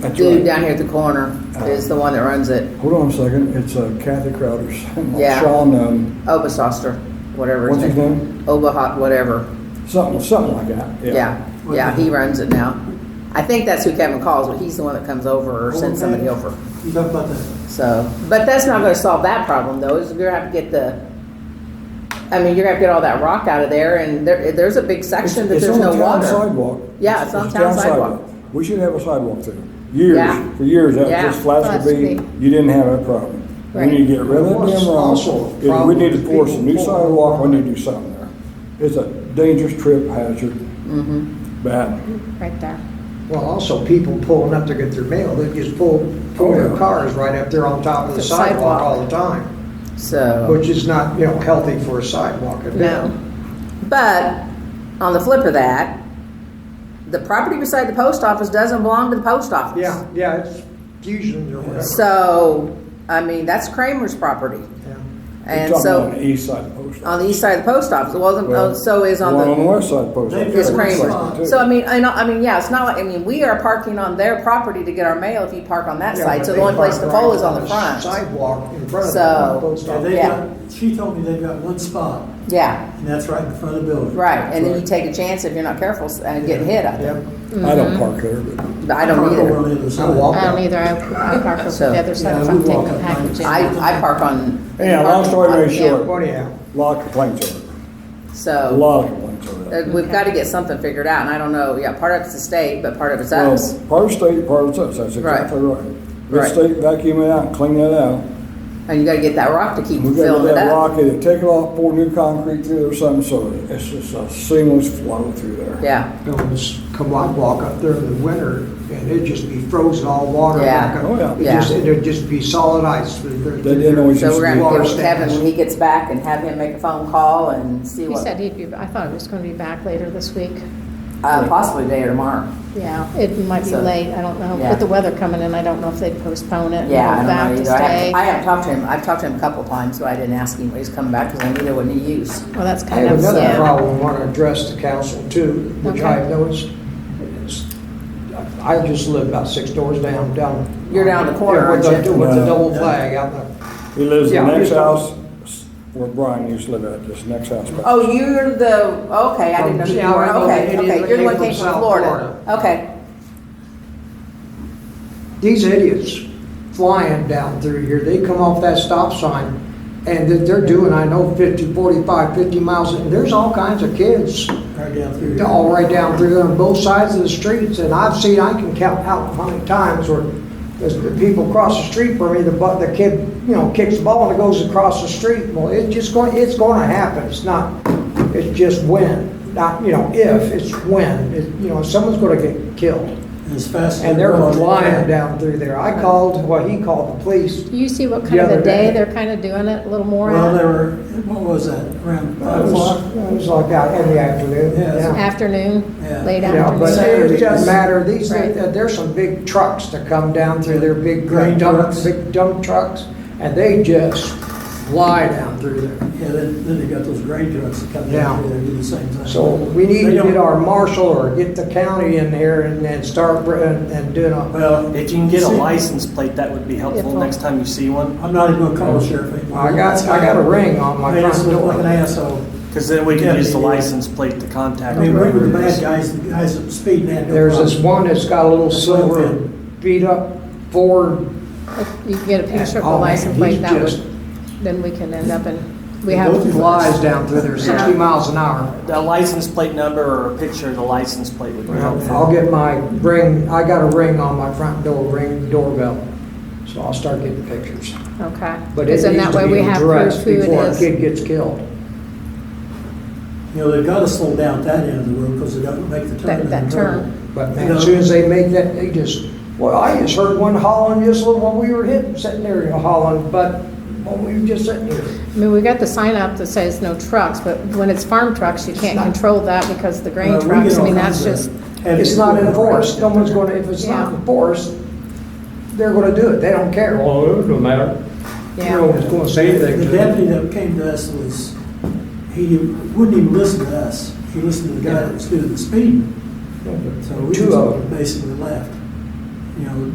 The That's dude right. Uh-huh. down here at the corner is the one that runs it. Hold on a second, it's uh, Kathy Crowder's, Yeah. Sean, um, Obasoster, whatever. what's his name? Obahot, whatever. Something, something like that, yeah. Yeah, yeah, he runs it now. I think that's who Kevin calls, but he's the one that comes over or sends somebody over. You talk about that. So, but that's not gonna solve that problem though, is you're gonna have to get the, I mean, you're gonna have to get all that rock out of there and there, there's a big section that It's- there's no It's on the town water. sidewalk. Yeah, it's on town sidewalk. We should have a sidewalk there. Yeah. Years, for years, that was Yeah. just Flats Flats to be, Beach. you didn't have that problem. We Right. need to get rid of them What's also a rock, if we problem need to is pour some new people pull- sidewalk, we need to do something there. It's a dangerous trip hazard. Mm-hmm. Bad. right there. Well, also people pulling up to get their mail, they just pull, Oh, pull their cars right up there on top of the The sidewalk sidewalk. all the time, So, which is not, you know, healthy for a sidewalk. at all. no. But on the flip of that, the property beside the post office doesn't belong to the post office. Yeah, yeah, it's fusion or whatever. So, I mean, that's Kramer's property. Yeah. You're And talking so. On the east side of Post On the east side of the post office, well, the- Well, oh, so is on one on the the, west side of Post. Office. is It's Kramer's. So I mean, I know, I mean, yeah, it's not like, I mean, we are parking on their property to get our mail if you park on that Yeah, side, but so the they only place park to right pull is on the front. Sidewalk in front of So- the post Yeah, office. they Yeah. got, she told me they've got one spot, Yeah, and that's right in front of the building. right, and then you take a chance if you're not careful and get hit, I think, Yep. I mm-hmm. don't park there, but. but I don't park over on either. the other I side. walk I don't either, I, I park over So- the other side if Yeah, I'm we walk taking up packages. I, I park on. Yeah, long story very Yeah. short, Well, anyhow, a lot of complaints over it, a So, lot of complaints over that. uh, we've gotta get something figured out, and I don't know, yeah, part of it's the state, but part of it's Well, us, Part of state, part of us, that's Right. exactly right. Right. Let state vacuum it out, and clean that out. and you gotta get that rock to keep We gotta filling get it that up. rock, either take it off, pour new concrete through or something, so it's just a seamless flow through there. Yeah, you know, this Kamwat walk up there in the winter, and it'd just be frozen all water. Yeah. Like, Oh, yeah. It just, it'd just be solid ice. They They didn't always so used we're to gonna do get Water with Kevin stands. when he gets back and have him make a phone call and see He what. said he'd be, I thought it was gonna be back later this week. Uh, possibly today or tomorrow. Yeah, it might be So- late, I don't know. Yeah. With the weather coming in, I don't know if they'd postpone it. and Yeah, move I back don't know to either. I stay. haven't, I haven't talked to him. I've talked to him a couple times, but I didn't ask him when he's coming back because I knew there wasn't any use. Well, that's I kind have of, another yeah. problem I want to address the council too, which Okay. I've noticed. is, I just live about six doors down, down. You're down the corner, Yeah, with aren't the- you? With the No. double flag out there. He lives in Yeah, the next just- house where Brian used to live at, this next house back. Oh, you're the, okay, I didn't know. you Yeah, were- I know Okay, that idiot okay, that you're the came one from came from South Florida. Okay, These idiots flying down through here, they come off that stop sign and that they're doing, I know, 50, 45, 50 miles. and There's all kinds of kids Right down through. here. all right down through there on both sides of the streets. And I've seen, I can count out how many times where there's the people cross the street from me, the, bu- the kid, you know, kicks the ball and it goes across the street. Well, it's just going, it's going to happen. It's not, it's just when, not, you know, if, it's when. It- You know, someone's going to get killed. And As fast as. And they're going. flying down through there. I called, well, he called the police. Do you see what The kind of a other day day. they're kind of doing it, a little more Well, they at? were, what was that, around It five was o'clock? it was like out in the afternoon, Yeah. yeah. afternoon, Yeah. late Yeah, but afternoon. it doesn't matter, these, Right. there's some big trucks that come down through their big Grain dump, trucks. big dump trucks, and they just fly down through there. Yeah, then, then they got those grain trucks that come Yeah. down through there, and do the same thing. So we need They to get don't- our marshal or get the county in here and then start, br- and and doing a, Well. If you can get a see, license plate, that would be helpful Helpful. next next time you see one, I'm not even gonna call the sheriff anymore. I got, I got a ring on my Made us front look like an door. asshole. because then we Yeah, can use the yeah. license plate to I contact. mean, we were whoever the it is. bad guys, the guys that speed had no There's this problem. one that's got a little That's what I'm silver thinking. beat up Ford If You can get a picture of the Oh, man, license plate, he's that would, just- then we can end up in, we They have. both to flies down through there, sixty miles an hour. A license plate number or a picture of the license plate would be helpful. I'll get my ring, I got a ring on my front door, ring doorbell, so I'll start getting pictures. Okay. But Because it then needs that to way be we have proof addressed who before a it is. kid gets killed. You know, they've gotta slow down at that end of the road, because they don't make the turn. That, in that the road. term. But man, as soon as they make that, they just, well, I just heard one hollering just little when we were hitting, sitting there hollering, but when we were just sitting here. I mean, we got the sign up that says no trucks, but when it's farm trucks, you can't control that because the grain Well, we trucks, get I all mean, kinds that's just, of heavy It's not equipment. enforced, no one's gonna, if it's not Yeah. enforced, they're gonna do it, they don't care. Well, it doesn't matter. No yeah. one's gonna say anything The to them. deputy that came to us was, he wouldn't even listen to us. He listened to the guy that was doing the speeding. So we Two of them. just basically left. You know,